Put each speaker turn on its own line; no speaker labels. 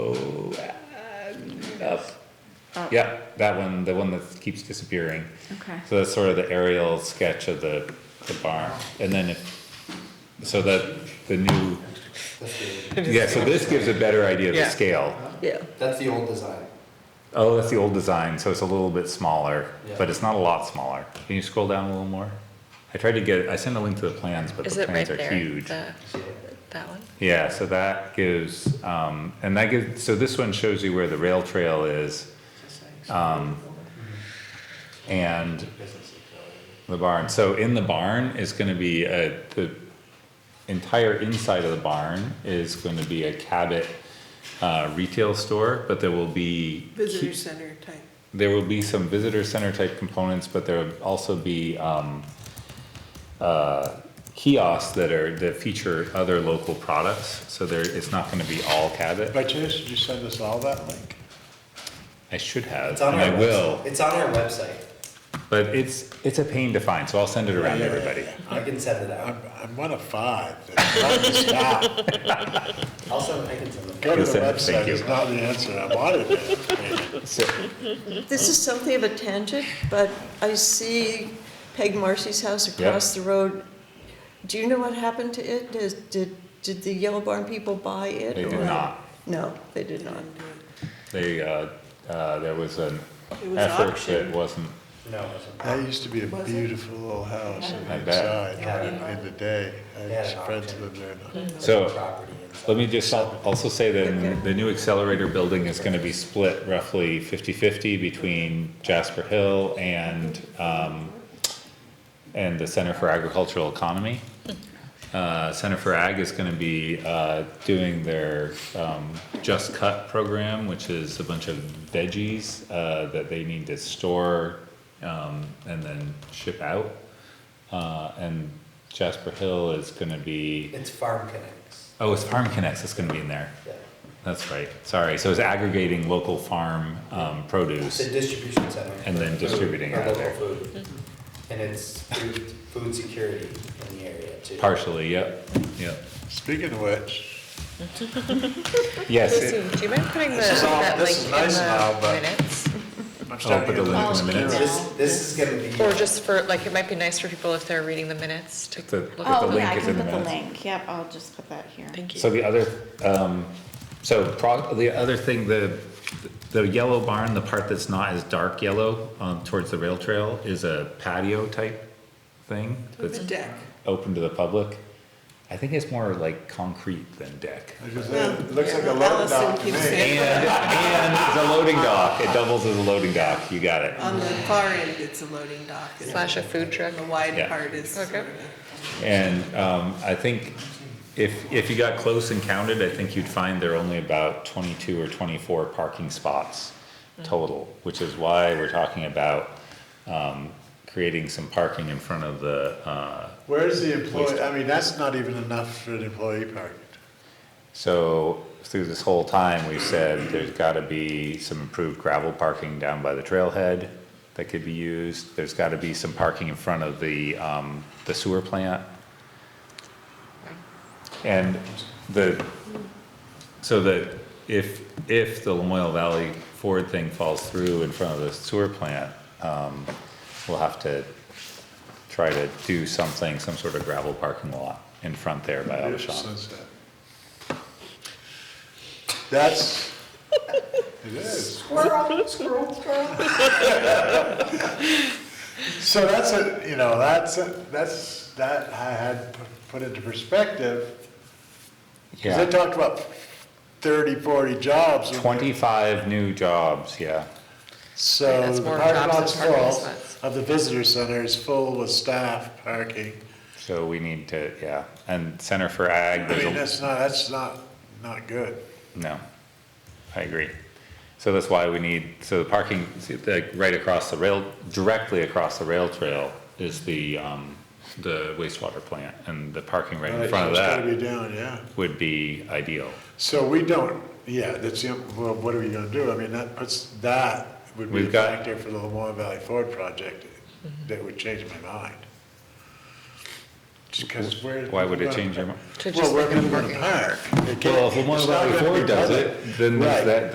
Up.
Oh,
Oh.
Yeah, that one, the one that keeps disappearing.
Okay.
So that's sort of the aerial sketch of the, the barn. And then if, so that, the new, yeah, so this gives a better idea of the
Yeah.
scale.
Yeah.
That's the old design.
Oh, that's the old design, so it's a little bit smaller,
Yeah.
but it's not a lot smaller. Can you scroll down a little more? I tried to get, I sent a link to the plans, but
Is
the
it right
plans are
there?
huge.
the- That one?
Yeah, so that gives, um, and that gives, so this one shows you where the rail trail is. Um, and the barn, so in the barn is gonna be a, the entire inside of the barn is gonna be a Cabot, uh, retail store, but there will be.
visitor center type.
There will be some visitor center type components, but there will also be, um, uh, kiosks that are, that feature other local products, so there, it's not gonna be all Cabot.
By chance, did you send us all that link?
I should have,
It's on
and
our
I will,
website. It's on our website.
but it's, it's a pain to find, so I'll send it around to
Yeah, yeah,
everybody.
I can send it
I'm,
out.
I'm one of five. It's hard to stop.
I'll send, I can send it.
Go to the
Listen, thank
website, it's
you.
not the answer I wanted. man.
So,
This is something of a tangent, but I see Peg Marcy's house across the road. Do you know what happened to it? Does- Did, did the Yellow Barn people buy it?
They did
or-
not.
No, they did not.
they, uh, uh, there was an
It was
effort that
auctioned.
wasn't,
No, it wasn't.
That used to be a beautiful little house
I
on the
bet.
inside,
Yeah.
right, in the day. I
Yeah.
had friends lived there. now.
so,
Property inside.
let me just al- also say that the new accelerator building is gonna be split roughly fifty-fifty between Jasper Hill and, um, and the Center for Agricultural Economy. Uh, Center for Ag is gonna be, uh, doing their, um, Just Cut program, which is a bunch of veggies, uh, that they need to store, um, and then ship out. Uh, and Jasper Hill is gonna be,
It's Farm Connects.
oh, it's Farm Connects that's gonna be in there.
Yeah.
That's right, sorry, so it's aggregating local farm, um,
It's a
produce,
distribution center.
And then
for food,
distributing
for
out of
local food. And it's food, food security in the area too.
partially, yep, yep.
Speaking of which,
Yes, it-
Lucy, do you mind putting the,
This is all-
that
this is
link in
nice and all,
the
but-
minutes?
I'm
I'll put
starting
the
to
link in the minutes.
This, this is gonna be.
Or just for, like, it might be nice for people if they're reading the minutes to
The-
look
the
at the
Oh,
link
yeah, I
is
can
in the
put the
minutes.
link, yep, I'll just put that here.
Thank
So
you.
the other, um, so pro, the other thing, the, the yellow barn, the part that's not as dark yellow, um, towards the rail trail is a patio type thing
With
that's
a deck.
open to the public. I think it's more like concrete than deck.
Because it looks like a load
Allison
dock to
keeps
me.
saying,
And, and it's a loading dock, it doubles as a loading dock, you got it.
On the far end, it's a loading dock. and
Slash a food truck.
The wide
Yeah.
part is sort
Okay.
of a-
And um, I think if, if you got close and counted, I think you'd find there are only about 22 or 24 parking spots total, which is why we're talking about um, creating some parking in front of the, uh,
Where's the employee, I mean, that's not even enough for an employee parking.
so through this whole time, we've said there's got to be some improved gravel parking down by the trailhead that could be used. There's got to be some parking in front of the, um, the sewer plant. And the, so that if, if the Lamoille Valley Ford thing falls through in front of the sewer plant, um, we'll have to try to do something, some sort of gravel parking lot in front there by all the
Beautiful
shops.
sunset. That's, it is.
Squirrel, squirrel, squirrel.
So that's a, you know, that's, a- that's, that I had p- put into perspective, because
Yeah.
they talked about 30, 40 jobs. when they-
25 new jobs, yeah.
Right,
So
that's
the
more
parking
jobs than
lot's
parking
full
spots.
of the visitor center is full with staff parking.
So we need to, yeah, and Center for Ag,
I mean,
there's
that's not, that's not, not good.
a, no, I agree. So that's why we need, so the parking, see, like, right across the rail, directly across the rail trail is the, um, the wastewater plant, and the parking right in front of
It's gotta
that
be down, yeah.
would be ideal.
So we don't, yeah, that's, the- well, what are we gonna do? I mean, that puts, that would be
We've
a
got-
factor for the Lemoore Valley Ford project that would change my mind. Just because we're.
Why would it change your mind?
To just
Well, we're
look at
gonna
parking.
park. It can't-
Well, if Lemoore
it's not
Valley
gonna be
Ford does
public.
it, then there's
Right.
that,